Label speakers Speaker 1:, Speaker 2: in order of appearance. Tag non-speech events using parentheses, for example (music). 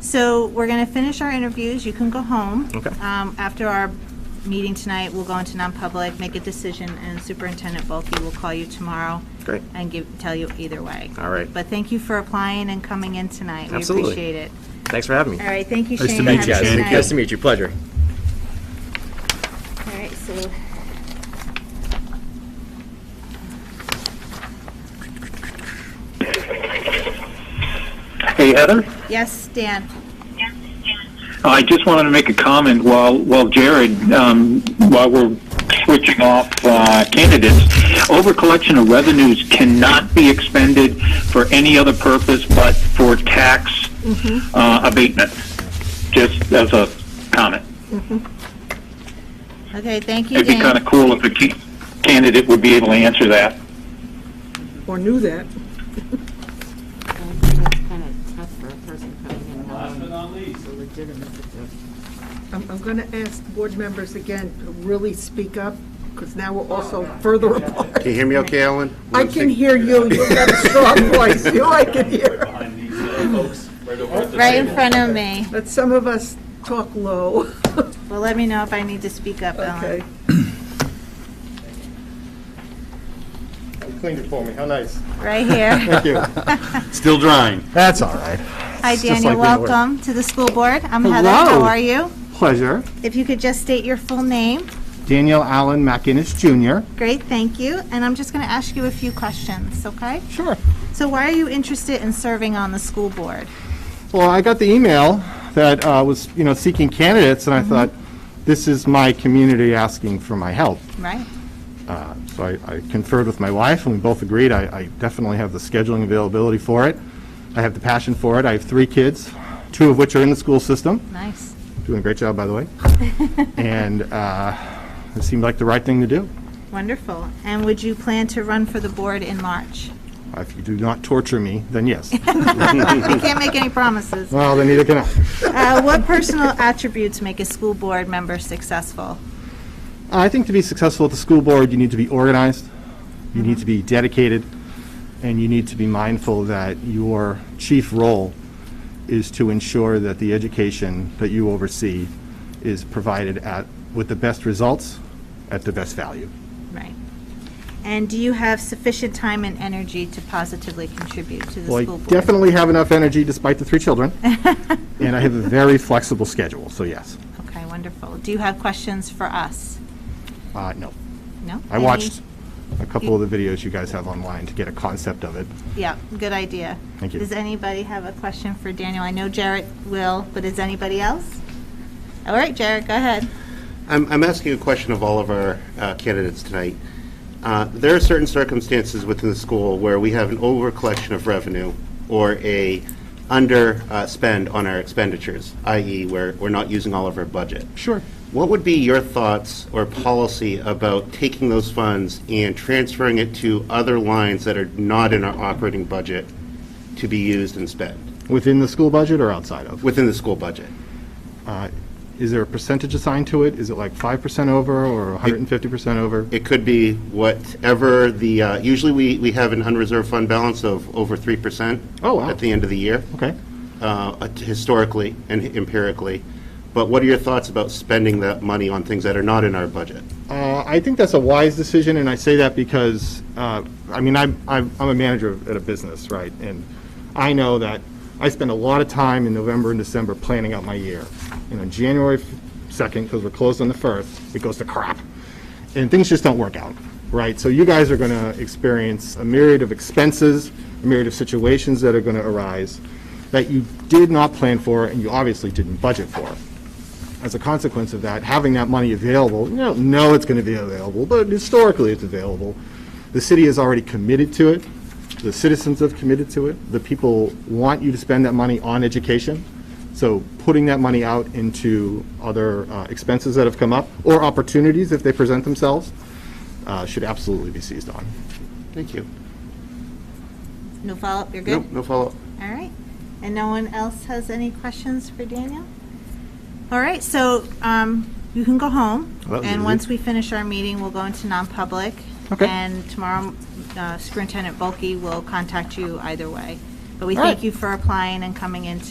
Speaker 1: So we're going to finish our interviews. You can go home.
Speaker 2: Okay.
Speaker 1: Um, After our meeting tonight, we'll go into non-public, make a decision, and Superintendent Volkey will call you tomorrow.
Speaker 2: Great.
Speaker 1: And give, tell you either way.
Speaker 2: All right.
Speaker 1: But thank you for applying and coming in tonight.
Speaker 2: Absolutely.
Speaker 1: We appreciate it.
Speaker 2: Thanks for having me.
Speaker 1: All right, thank you, Shane.
Speaker 3: Nice to meet
Speaker 1: Have
Speaker 3: you,
Speaker 1: a good
Speaker 3: Shane.
Speaker 1: night.
Speaker 2: Nice to meet you, pleasure.
Speaker 1: All right, so.
Speaker 4: Hey, Heather.
Speaker 1: Yes, Dan?
Speaker 4: I just wanted to make a comment while while Jared, um, while we're switching off uh, candidates. Over collection of revenues cannot be expended for any other purpose but for tax uh, abatement. Just as a comment,
Speaker 1: Okay, thank you,
Speaker 4: it'd be kind
Speaker 1: Dan.
Speaker 4: of cool if a ca- candidate would be able to answer that.
Speaker 5: or knew that.
Speaker 6: That's kind of tough for a person coming in.
Speaker 7: Last but not least.
Speaker 5: I'm, I'm going to ask board members again to really speak up, because now
Speaker 6: Oh,
Speaker 5: we're also further apart.
Speaker 8: Can you hear me okay, Ellen?
Speaker 5: I can hear you, you've got a strong voice, you I can hear.
Speaker 7: Behind these uh, folks, right over at the
Speaker 1: Right in
Speaker 7: table.
Speaker 1: front of me.
Speaker 5: But some of us talk low. (laughs)
Speaker 1: Well, let me know if I need to speak up,
Speaker 5: Okay.
Speaker 1: Ellen.
Speaker 8: You cleaned it for me, how nice.
Speaker 1: Right here.
Speaker 8: Thank you.
Speaker 3: Still drying.
Speaker 8: That's all right.
Speaker 1: Hi,
Speaker 8: It's just
Speaker 1: Daniel,
Speaker 8: like we were.
Speaker 1: welcome to the school board. I'm Heather, how
Speaker 8: Hello.
Speaker 1: are you?
Speaker 8: Pleasure.
Speaker 1: If you could just state your full name.
Speaker 8: Daniel Allen McInnes Jr.
Speaker 1: Great, thank you. And I'm just going to ask you a few questions, okay?
Speaker 8: Sure.
Speaker 1: So why are you interested in serving on the school board?
Speaker 8: Well, I got the email that uh, was, you know, seeking candidates, and I thought, this is my community asking for my help.
Speaker 1: Right?
Speaker 8: Uh, So I I conferred with my wife, and we both agreed I I definitely have the scheduling availability for it. I have the passion for it. I have three kids, two of which are in the school system.
Speaker 1: Nice.
Speaker 8: Doing a great job, by the way. And uh, it seemed like the right thing to do.
Speaker 1: Wonderful. And would you plan to run for the board in March? (laughs)
Speaker 8: If you do not torture me, then yes.
Speaker 1: I can't make any promises.
Speaker 8: Well, then neither can I.
Speaker 1: Uh, What personal attributes make a school board member successful?
Speaker 8: I think to be successful at the school board, you need to be organized, you need to be dedicated, and you need to be mindful that your chief role is to ensure that the education that you oversee is provided at, with the best results, at the best value.
Speaker 1: Right. And do you have sufficient time and energy to positively contribute to the
Speaker 8: Well, I
Speaker 1: school board?
Speaker 8: definitely have enough energy despite the
Speaker 1: (laughs)
Speaker 8: three children, and I have a very flexible schedule, so yes.
Speaker 1: Okay, wonderful. Do you have questions for us?
Speaker 8: Uh, no,
Speaker 1: No?
Speaker 8: I
Speaker 1: Any-
Speaker 8: watched a couple of the videos you guys have online to get a concept of it.
Speaker 1: Yeah, good idea.
Speaker 8: Thank you.
Speaker 1: Does anybody have a question for Daniel? I know Jarrett will, but is anybody else? All right, Jarrett, go ahead.
Speaker 9: I'm, I'm asking a question of all of our uh, candidates tonight. Uh, There are certain circumstances within the school where we have an over-collection of revenue or a under-spend on our expenditures, i.e., where we're not using all of our budget.
Speaker 8: Sure.
Speaker 9: What would be your thoughts or policy about taking those funds and transferring it to other lines that are not in our operating budget to be used and spent
Speaker 8: Within the school budget or outside of?
Speaker 9: within the school budget?
Speaker 8: Uh, Is there a percentage assigned to it? Is it like 5% over or 150% over?
Speaker 9: It could be whatever the, uh, usually we, we have an unreserved fund balance of over 3%.
Speaker 8: Oh, wow.
Speaker 9: At the end of the year.
Speaker 8: Okay.
Speaker 9: uh, Historically and empirically. But what are your thoughts about spending that money on things that are not in our budget?
Speaker 8: Uh, I think that's a wise decision, and I say that because, uh, I mean, I'm, I'm I'm a manager at a business, right? And I know that I spend a lot of time in November and December planning out my year. You know, January 2nd, because we're closed on the 1st, it goes to crap. And things just don't work out, right? So you guys are going to experience a myriad of expenses, a myriad of situations that are going to arise that you did not plan for and you obviously didn't budget for as a consequence of that, having that money available, you don't know it's going to be available, but historically it's available. The city has already committed to it. The citizens have committed to it. The people want you to spend that money on education. So putting that money out into other uh, expenses that have come up or opportunities if they present themselves uh, should absolutely be seized on.
Speaker 9: Thank you.
Speaker 1: No follow-up, you're
Speaker 9: No,
Speaker 1: good?
Speaker 9: no follow-up.
Speaker 1: All right. And no one else has any questions for Daniel? All right, so um, you can go home.
Speaker 8: Well, that was
Speaker 1: And
Speaker 8: easy.
Speaker 1: once we finish our meeting, we'll go into non-public.
Speaker 8: Okay.
Speaker 1: And tomorrow uh, Superintendent Bulky will contact you either way. But we
Speaker 8: All right.
Speaker 1: thank you for applying and coming in tonight.